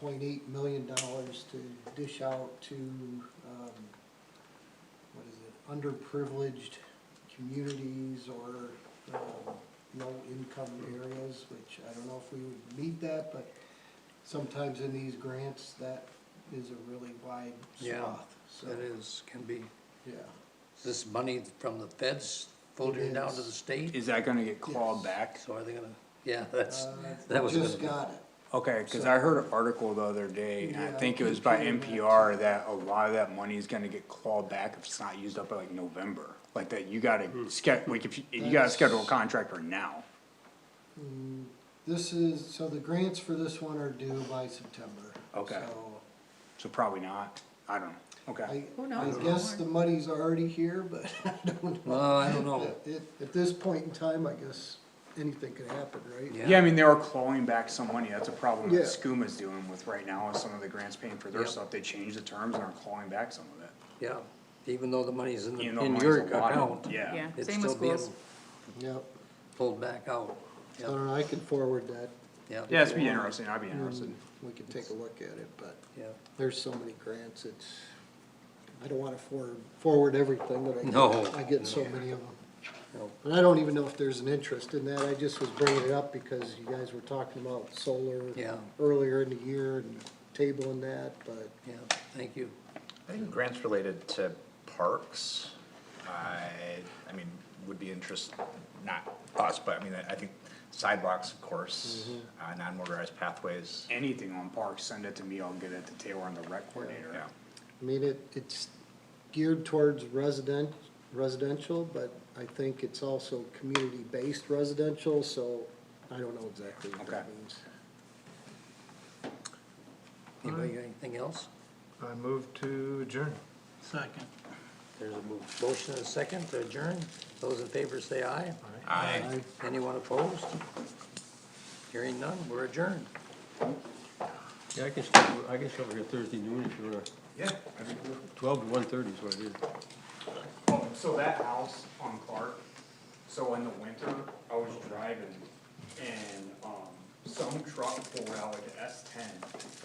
point eight million dollars to dish out to, um, what is it, underprivileged communities or, um, low-income areas, which I don't know if we would need that, but sometimes in these grants, that is a really wide Yeah, swath, so, That is, can be, yeah. is this money from the feds filtering down to the is. state? Is that gonna get Yes. clawed back? So are they gonna, yeah, that's, Uh, that was Just gonna got it. Okay, cause I heard an article the other day, and I Yeah, think it was by computer and- NPR, that a lot of that money is gonna get clawed back if it's not used up by like November. Like that, you gotta sched, like if you, you gotta Hmm. That's- schedule a contractor now. Mm, This is, so the grants for this one are due by September. Okay. So So probably not, I don't know, okay. I, Who I knows? guess the money's already here, but I don't know. well, I don't know, At, at this point in time, I guess anything could happen, right? Yeah. Yeah, I mean, they are clawing back some money, that's a problem that Yeah. SCUMA's dealing with right now, is some of the grants paying for their Yeah. stuff, they changed the terms and are clawing back some of it. yeah, even though the money's in, the- Even though in money's your allotted, account, Yeah, Yeah. it's Same with still being schools. Yep. pulled back out, I don't know, I could forward that. yeah. yeah, it'd be interesting, I'd be interested. We could take a look at it, but Yeah. there's so many grants, it's, I don't wanna forward, forward everything, but I No. get, I get so many of them. No. And I don't even know if there's an interest in that, I just was bringing it up because you guys were talking about solar Yeah. earlier in the year and tabling that, but Yeah, thank you, I think grants related to parks, I, I mean, would be interest, not us, but I mean, I think sidewalks, of course, uh, non-motorized pathways, Anything on parks, send it to me, I'll get it to Taylor and the rec coordinator. yeah. I mean, it, it's geared towards resident, residential, but I think it's also community-based residential, so I don't know exactly what that Okay. means. anybody got anything else? I move to adjourn. There's a mo- motion and a second to adjourn, those in favor say aye, I, anyone opposed? Hearing none, we're adjourned. Yeah, I can, stay- I can stay over here Thursday noon if you wanna, yeah, twelve to one thirty is what it is. Oh, so that house on Clark, so in the winter, I was driving and, um, some truck pulled out like S ten